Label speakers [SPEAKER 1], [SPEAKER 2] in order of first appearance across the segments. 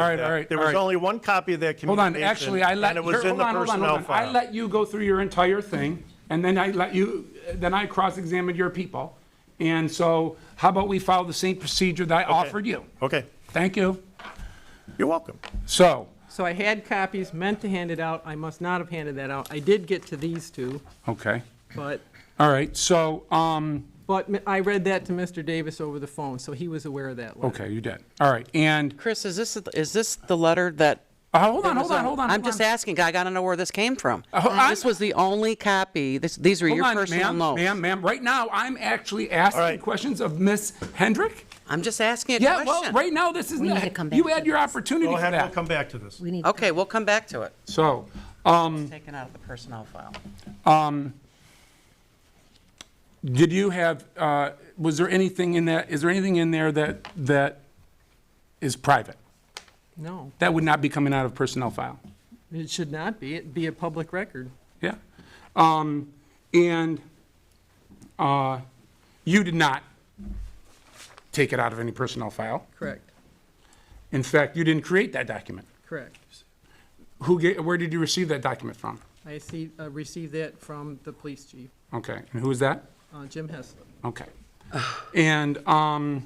[SPEAKER 1] All right, all right,
[SPEAKER 2] There
[SPEAKER 1] all
[SPEAKER 2] was
[SPEAKER 1] right.
[SPEAKER 2] only one copy of that
[SPEAKER 1] Hold on,
[SPEAKER 2] communication.
[SPEAKER 1] actually, I let,
[SPEAKER 2] And it
[SPEAKER 1] here-
[SPEAKER 2] was in
[SPEAKER 1] hold
[SPEAKER 2] the
[SPEAKER 1] on, hold on, hold
[SPEAKER 2] personnel
[SPEAKER 1] on. I
[SPEAKER 2] file.
[SPEAKER 1] let you go through your entire thing, and then I let you, then I cross-examined your people. And so how about we follow the same procedure that I offered you?
[SPEAKER 2] Okay,
[SPEAKER 1] Thank you.
[SPEAKER 2] you're welcome.
[SPEAKER 1] So,
[SPEAKER 3] So I had copies, meant to hand it out, I must not have handed that out. I did get to these two,
[SPEAKER 1] okay,
[SPEAKER 3] but,
[SPEAKER 1] all right, so, um,
[SPEAKER 3] but m- I read that to Mr. Davis over the phone, so he was aware of that letter.
[SPEAKER 1] okay, you did, all right, and,
[SPEAKER 4] Chris, is this, is this the letter that?
[SPEAKER 1] uh, hold on,
[SPEAKER 4] was
[SPEAKER 1] hold on,
[SPEAKER 4] on-
[SPEAKER 1] hold on.
[SPEAKER 4] I'm
[SPEAKER 1] hold
[SPEAKER 4] just
[SPEAKER 1] on.
[SPEAKER 4] asking, I gotta know where this came from.
[SPEAKER 1] ho- I'm-
[SPEAKER 4] This was the only copy, this, these were
[SPEAKER 1] Hold
[SPEAKER 4] your
[SPEAKER 1] on,
[SPEAKER 4] personal
[SPEAKER 1] ma'am,
[SPEAKER 4] notes.
[SPEAKER 1] Ma'am, ma'am, right now, I'm actually
[SPEAKER 2] right.
[SPEAKER 1] asking questions of Ms. Hendrick?
[SPEAKER 4] I'm just asking a
[SPEAKER 1] Yeah, well,
[SPEAKER 4] question.
[SPEAKER 1] right now, this is,
[SPEAKER 5] We need to come
[SPEAKER 1] not
[SPEAKER 5] back
[SPEAKER 1] you
[SPEAKER 5] to
[SPEAKER 1] had your
[SPEAKER 5] this.
[SPEAKER 1] opportunity
[SPEAKER 2] We'll
[SPEAKER 1] for
[SPEAKER 2] have, we'll
[SPEAKER 1] that.
[SPEAKER 2] come back to this.
[SPEAKER 5] We need,
[SPEAKER 4] Okay, we'll come back to it.
[SPEAKER 1] So,
[SPEAKER 4] Taken out of the personnel file.
[SPEAKER 1] Mm. Did you have, uh, was there anything in that, is there anything in there that, that is private?
[SPEAKER 3] No,
[SPEAKER 1] That would not be coming out of personnel file?
[SPEAKER 3] it should not be, it'd be a public record.
[SPEAKER 1] Yeah? Um, And uh, you did not take it out of any personnel file?
[SPEAKER 3] Correct,
[SPEAKER 1] In fact, you didn't create that document?
[SPEAKER 3] correct.
[SPEAKER 1] Who, ga- where did you receive that document from?
[SPEAKER 3] I see, uh, received that from the police chief,
[SPEAKER 1] Okay, and who is that?
[SPEAKER 3] uh, Jim Heslop.
[SPEAKER 1] Okay. And um,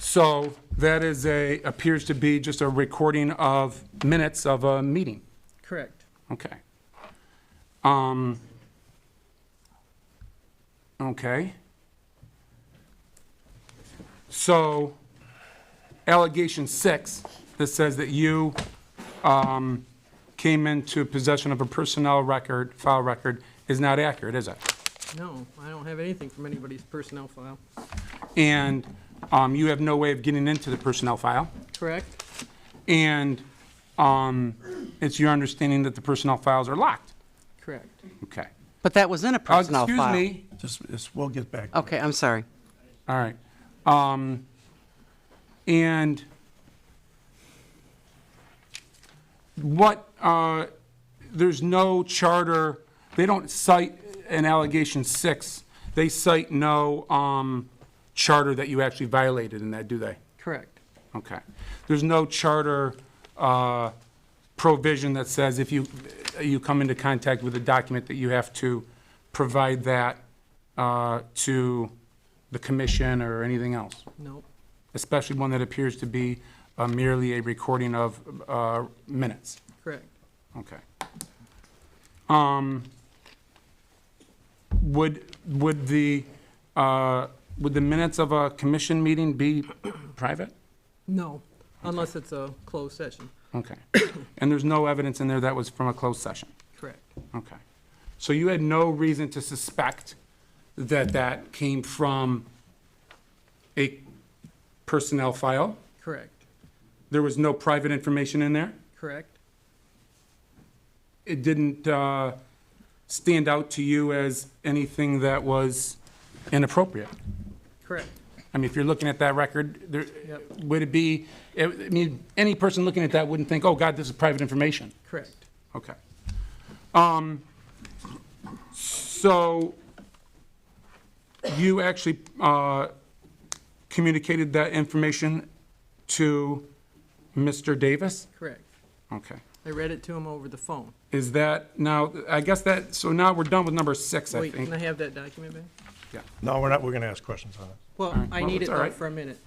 [SPEAKER 1] so that is a, appears to be just a recording of minutes of a meeting.
[SPEAKER 3] Correct.
[SPEAKER 1] Okay. Um, okay. So allegation six, that says that you um, came into possession of a personnel record, file record, is not accurate, is it?
[SPEAKER 3] No, I don't have anything from anybody's personnel file.
[SPEAKER 1] and um, you have no way of getting into the personnel file.
[SPEAKER 3] Correct?
[SPEAKER 1] And um, it's your understanding that the personnel files are locked.
[SPEAKER 3] Correct.
[SPEAKER 1] Okay.
[SPEAKER 4] But that was in a
[SPEAKER 1] Uh,
[SPEAKER 4] personnel file.
[SPEAKER 1] Excuse me.
[SPEAKER 2] Just, just- we'll get back. to it.
[SPEAKER 4] Okay, I'm sorry.
[SPEAKER 1] All right. Um, And what, uh, there's no charter, they don't cite an allegation six. They cite no um, charter that you actually violated in that, do they?
[SPEAKER 3] Correct.
[SPEAKER 1] Okay. There's no charter uh, provision that says if you, you come into contact with a document that you have to provide that uh, to the commission or anything else,
[SPEAKER 3] Nope.
[SPEAKER 1] especially one that appears to be uh, merely a recording of uh, minutes.
[SPEAKER 3] Correct.
[SPEAKER 1] Okay. Um, Would, would the, uh, would the minutes of a commission meeting be private?
[SPEAKER 3] No, unless it's a closed session.
[SPEAKER 1] Okay. And there's no evidence in there that was from a closed session?
[SPEAKER 3] Correct.
[SPEAKER 1] Okay. So you had no reason to suspect that that came from a personnel file?
[SPEAKER 3] Correct.
[SPEAKER 1] There was no private information in there?
[SPEAKER 3] Correct.
[SPEAKER 1] It didn't uh, stand out to you as anything that was inappropriate?
[SPEAKER 3] Correct.
[SPEAKER 1] I mean, if you're looking at that record, there,
[SPEAKER 3] Yep.
[SPEAKER 1] would it be, I mean, any person looking at that wouldn't think, oh, God, this is private information.
[SPEAKER 3] Correct.
[SPEAKER 1] Okay. Um, So you actually uh, communicated that information to Mr. Davis?
[SPEAKER 3] Correct.
[SPEAKER 1] Okay.
[SPEAKER 3] I read it to him over the phone.
[SPEAKER 1] Is that now, I guess that, so now we're done with number six, I
[SPEAKER 3] Wait, can I
[SPEAKER 1] think.
[SPEAKER 3] have that document back?
[SPEAKER 1] Yeah.
[SPEAKER 2] No, we're not, we're going to ask questions on it.
[SPEAKER 3] Well, I
[SPEAKER 1] well,
[SPEAKER 3] need
[SPEAKER 1] it's
[SPEAKER 3] it
[SPEAKER 1] all
[SPEAKER 3] though
[SPEAKER 1] right.
[SPEAKER 3] for a minute.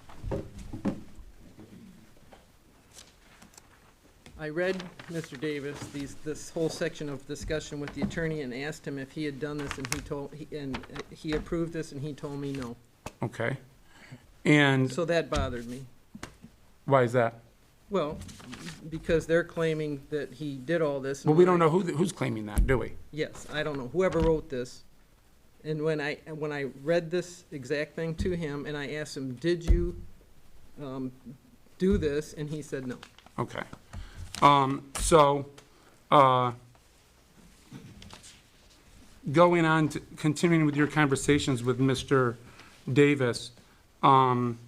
[SPEAKER 3] I read, Mr. Davis, these, this whole section of discussion with the attorney and asked him if he had done this and he told, he- and uh, he approved this and he told me no.
[SPEAKER 1] Okay. And
[SPEAKER 3] So that bothered me.
[SPEAKER 1] why is that?
[SPEAKER 3] Well, because they're claiming that he did all this. and
[SPEAKER 1] Well, we
[SPEAKER 3] when I-
[SPEAKER 1] don't know who, who's claiming that, do we?
[SPEAKER 3] Yes, I don't know, whoever wrote this. And when I, and when I read this exact thing to him, and I asked him, did you um, do this? And he said no.
[SPEAKER 1] Okay. Um, so, uh, going on, to- continuing with your conversations with Mr. Davis, um,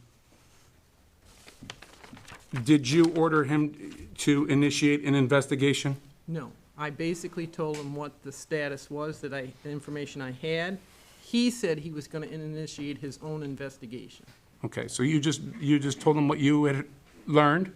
[SPEAKER 1] did you order him to initiate an investigation?
[SPEAKER 3] No. I basically told him what the status was, that I, the information I had. He said he was going to initiate his own investigation.
[SPEAKER 1] Okay, so you just, you just told him what you had learned